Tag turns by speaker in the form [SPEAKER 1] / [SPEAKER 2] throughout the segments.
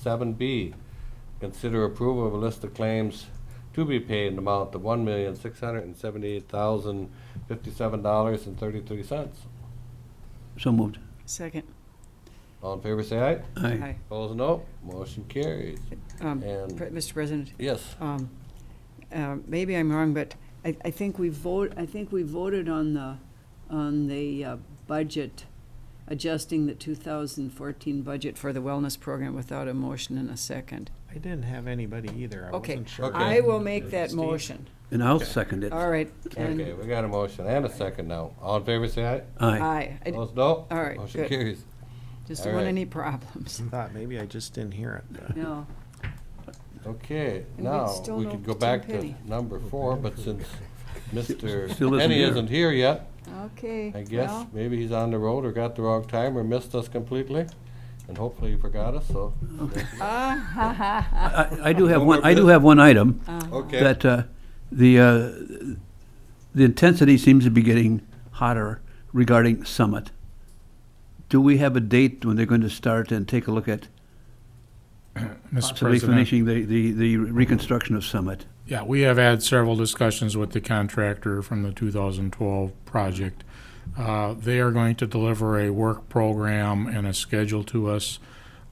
[SPEAKER 1] Seven B, consider approval of a list of claims to be paid in the amount of one million, six hundred and seventy-eight thousand, fifty-seven dollars and thirty-three cents.
[SPEAKER 2] So moved.
[SPEAKER 3] Second.
[SPEAKER 1] All in favor, say aye.
[SPEAKER 2] Aye.
[SPEAKER 1] Opposed, no. Motion carries.
[SPEAKER 3] Um,
[SPEAKER 1] And-
[SPEAKER 3] Pre- Mr. President,
[SPEAKER 1] Yes,
[SPEAKER 3] um, uh, maybe I'm wrong, but I, I think we vote, I think we voted on the, on the uh, budget, adjusting the 2014 budget for the wellness program without a motion and a second.
[SPEAKER 4] I didn't have anybody either. I
[SPEAKER 3] Okay,
[SPEAKER 4] wasn't sure.
[SPEAKER 3] I
[SPEAKER 1] Okay.
[SPEAKER 3] will make that
[SPEAKER 4] Steve?
[SPEAKER 3] motion.
[SPEAKER 2] And I'll second it.
[SPEAKER 3] All right. and-
[SPEAKER 1] okay, we got a motion and a second now. All in favor, say aye.
[SPEAKER 2] Aye.
[SPEAKER 3] Aye. I
[SPEAKER 1] Opposed, no.
[SPEAKER 3] All right,
[SPEAKER 1] Motion
[SPEAKER 3] good.
[SPEAKER 1] carries.
[SPEAKER 3] just
[SPEAKER 1] All
[SPEAKER 3] don't want
[SPEAKER 1] right.
[SPEAKER 3] any problems.
[SPEAKER 4] Thought maybe I just didn't hear it. but-
[SPEAKER 3] No.
[SPEAKER 1] Okay,
[SPEAKER 3] And we
[SPEAKER 1] now,
[SPEAKER 3] still
[SPEAKER 1] we
[SPEAKER 3] don't
[SPEAKER 1] could go
[SPEAKER 3] Tim
[SPEAKER 1] back to
[SPEAKER 3] Penny.
[SPEAKER 1] number four, but since Mr.
[SPEAKER 2] still isn't
[SPEAKER 1] Penny
[SPEAKER 2] here.
[SPEAKER 1] isn't here yet,
[SPEAKER 3] Okay.
[SPEAKER 1] I guess
[SPEAKER 3] well,
[SPEAKER 1] maybe he's on the road or got the wrong time or missed us completely, and hopefully he forgot us, so.
[SPEAKER 3] ah, ha, ha, ha.
[SPEAKER 2] I I do have one, I do have one item,
[SPEAKER 1] Okay.
[SPEAKER 2] that uh, the, uh, the intensity seems to be getting hotter regarding Summit. Do we have a date when they're going to start and take a look at
[SPEAKER 5] Mr.
[SPEAKER 2] possibly
[SPEAKER 5] President,
[SPEAKER 2] finishing the, the the reconstruction of Summit?
[SPEAKER 5] yeah, we have had several discussions with the contractor from the 2012 project. Uh, They are going to deliver a work program and a schedule to us.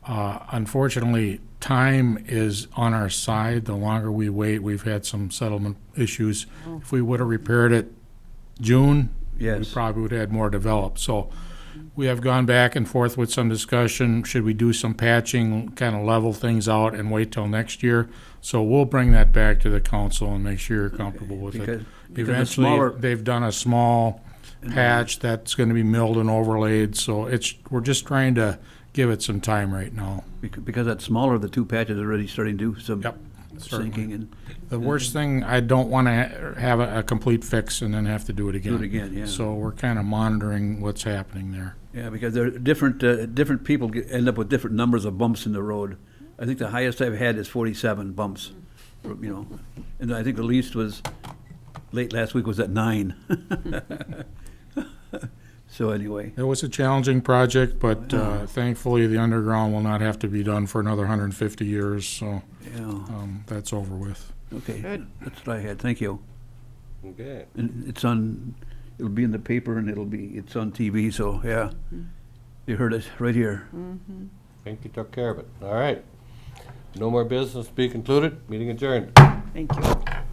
[SPEAKER 5] Uh, Unfortunately, time is on our side. The longer we wait, we've had some settlement issues. If we would have repaired it June, we
[SPEAKER 2] Yes.
[SPEAKER 5] probably would have had more developed. So we have gone back and forth with some discussion, should we do some patching, kind of level things out and wait till next year? So we'll bring that back to the council and make sure you're comfortable with
[SPEAKER 2] Because
[SPEAKER 5] it.
[SPEAKER 2] because the
[SPEAKER 5] Eventually,
[SPEAKER 2] smaller-
[SPEAKER 5] they've done a small patch that's gonna be milled and overlaid, so it's, we're just trying to give it some time right now.
[SPEAKER 2] bec- Because that smaller of the two patches are already starting to do some
[SPEAKER 5] Yep,
[SPEAKER 2] sinking
[SPEAKER 5] certainly.
[SPEAKER 2] and
[SPEAKER 5] The worst thing, I don't wanna ha- have a, a complete fix and then have to do it again.
[SPEAKER 2] do it again, yeah.
[SPEAKER 5] So we're kind of monitoring what's happening there.
[SPEAKER 2] Yeah, because there are different, uh, different people get- end up with different numbers of bumps in the road. I think the highest I've had is forty-seven bumps, you know, and I think the least was, late last week was at nine. So anyway,
[SPEAKER 5] It was a challenging project, but
[SPEAKER 2] Yeah.
[SPEAKER 5] uh, thankfully, the underground will not have to be done for another 150 years, so
[SPEAKER 2] yeah,
[SPEAKER 5] um, that's over with.
[SPEAKER 2] okay,
[SPEAKER 3] Good.
[SPEAKER 2] that's what I had, thank you.
[SPEAKER 1] Okay,
[SPEAKER 2] And it's on, it'll be in the paper and it'll be, it's on TV, so, yeah. You heard it right here.
[SPEAKER 1] think you took care of it. All right. No more business to be concluded, meeting adjourned.
[SPEAKER 3] Thank you.